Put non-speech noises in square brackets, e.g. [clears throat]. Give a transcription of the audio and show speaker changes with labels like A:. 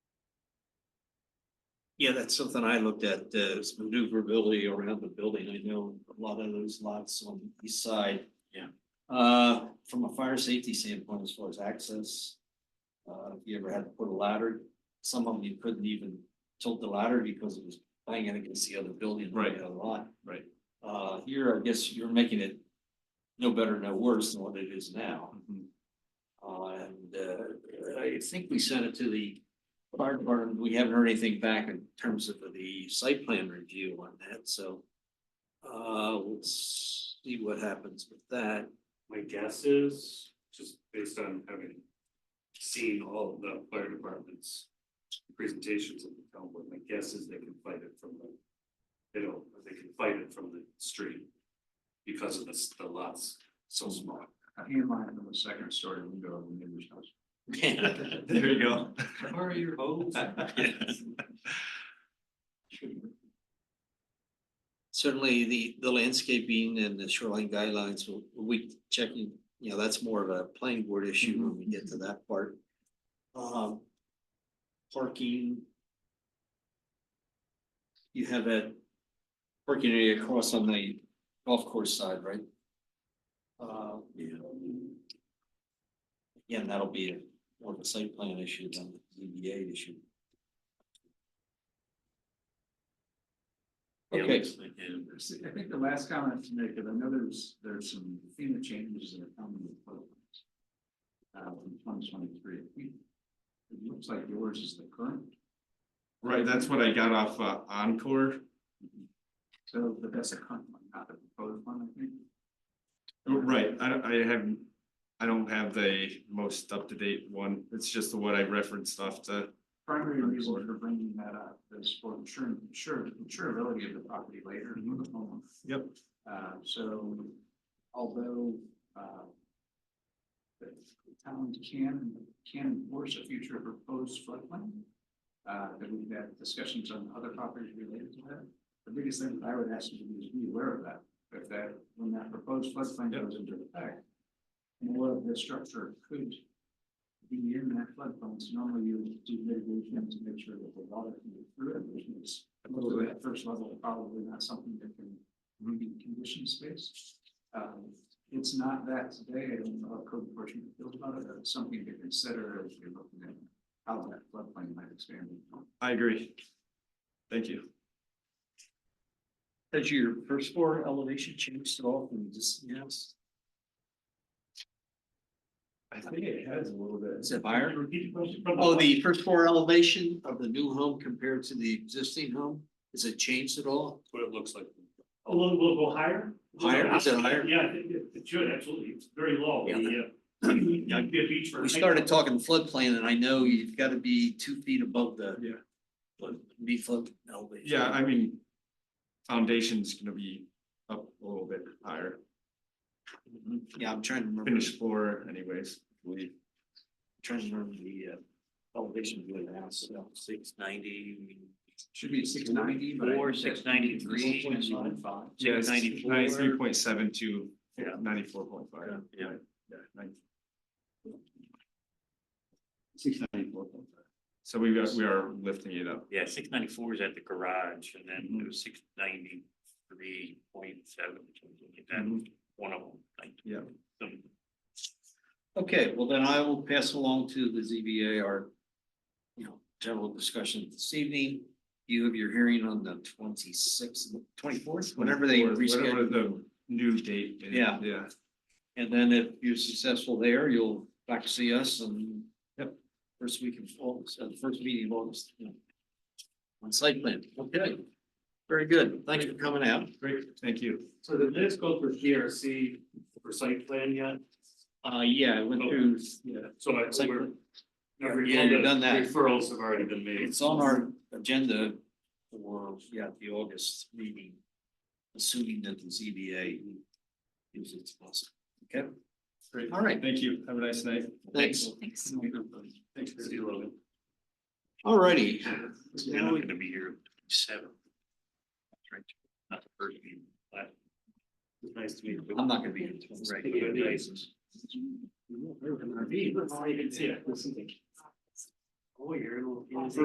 A: Yeah, that's something I looked at, uh, is maneuverability around the building. I know a lot of those lots on the east side.
B: Yeah.
A: Uh, from a fire safety standpoint, as far as access. Uh, if you ever had to put a ladder, some of them you couldn't even tilt the ladder because it was banging against the other building. or the
B: Right.
A: other Lot.
B: Right.
A: Uh, here, I guess you're making it no better, no worse than what it is now.
B: Mm-hmm.
A: Uh, and, uh, I think we sent it to the fire department. We haven't heard anything back in terms of the site plan review on that, so. Uh, we'll see what happens with that.
C: My guess is, just based on having seen all of the fire departments. Presentations of the town board, my guess is they can fight it from the, they don't, they can fight it from the street. Because of the, s- the lots so small.
B: I can't mind the second story window of the neighbor's house.
A: [laughs] There
B: you go.
C: Where are your homes?
A: [laughs] Certainly, the, the landscaping and the shoreline guidelines, will we checking, you know, that's more of a planning board issue when we get to that part. Um, parking. You have a parking area across on the golf course side, right? Uh,
B: Yeah.
A: again, that'll be a- more of a site plan issue than the ZBA issue. Okay,
B: I think the last comment to make, and I know there's, there's some FEMA changes that are coming with programs. Uh, in twenty twenty-three, it looks like yours is the current,
D: Right, that's what I got off uh, Encore.
B: so but that's a current one, not a proposed one, I think.
D: Right, I don't, I haven't, I don't have the most up-to-date one. It's just the one I referenced off the.
B: Primary reason for bringing that up is for insurance, insure, insurability of the property later for the homeowner.
D: Yep.
B: Uh, so although, uh, the town can, can enforce a future proposed floodplain, uh, that we've had discussions on other properties related to that. The biggest thing that I would ask you to do is be aware of that, if that, when that proposed floodplain
D: Yep.
B: goes into effect, more of the structure could be in that floodplain, so normally you do mitigation to make sure that the water can get through it, which is most of that first level, probably not something that can be condition space. Um, it's not that today, I don't know how code enforcement feels about it, but it's something to consider as you're looking at how that floodplain might expand.
D: I agree. Thank you.
A: has your first floor elevation changed at all from just, yes?
D: I think it has a little bit.
A: Is it higher?
C: Repeat the question.
A: Oh, the first floor elevation of the new home compared to the existing home, is it changed at all?
C: What it looks like.
E: A little, will go higher?
A: Higher, is it higher?
E: Yeah, I think it, it should, absolutely, it's very low.
A: Yeah.
D: [clears throat]
E: The, uh, you know, it'd be a beach for-
A: We started talking floodplain and I know you've got to be two feet above the.
D: Yeah.
A: flood- Be flood elevation.
D: Yeah, I mean, foundation's gonna be up a little bit higher,
A: Mhm. Yeah, I'm trying to remember,
D: finished floor anyways. I believe.
A: trying to remember the uh, elevation of the house, six ninety.
B: Should be six ninety, but.
A: Four, 693.
D: Yeah, it's
A: 94.
D: Ninety-three point seven to
A: Yeah.
D: ninety-four point five.
A: Yeah.
D: Yeah, nine- So we got, we are lifting it up.
C: Yeah, six ninety-four is at the garage, and then
A: Mm-hmm.
D: Mhm.
C: it was six ninety-three point seven,
D: Mhm.
A: Mm-hmm.
C: one of them, like.
D: Yeah.
C: some-
A: Okay, well then I will pass along to the ZBA our, you know, general discussion this evening. You have your hearing on the twenty-sixth, twenty-fourth, whenever they
D: Or Whatever
A: reschedule.
D: the new date. is,
A: Yeah.
D: Yeah.
A: And then if you're successful there, you'll back see us and
D: Yep.
A: first week of August, uh, first meeting of August. you know, On site plan, okay. Very good. Thank you for coming out.
D: Great, thank you.
C: So did this go for GRC for site plan yet?
A: Uh, yeah, I went through, yeah.
C: So I,
A: Site
C: we're.
A: plan.
C: never-
A: Yeah, you've done that.
C: Referrals have already been made.
A: It's on our agenda for, yeah, the August meeting, assuming that the ZBA gives its blessing. Okay,
D: Great.
A: all right,
D: Thank you. Have a nice night.
A: thanks.
B: Thanks.
C: Thanks, see you later.
A: All righty,
C: You're not gonna be here seven. That's right. Not the first meeting, but. It's nice to meet you.
A: I'm not gonna be in.
C: Right, it'd be nice.
A: Right.
C: Oh, you're. in-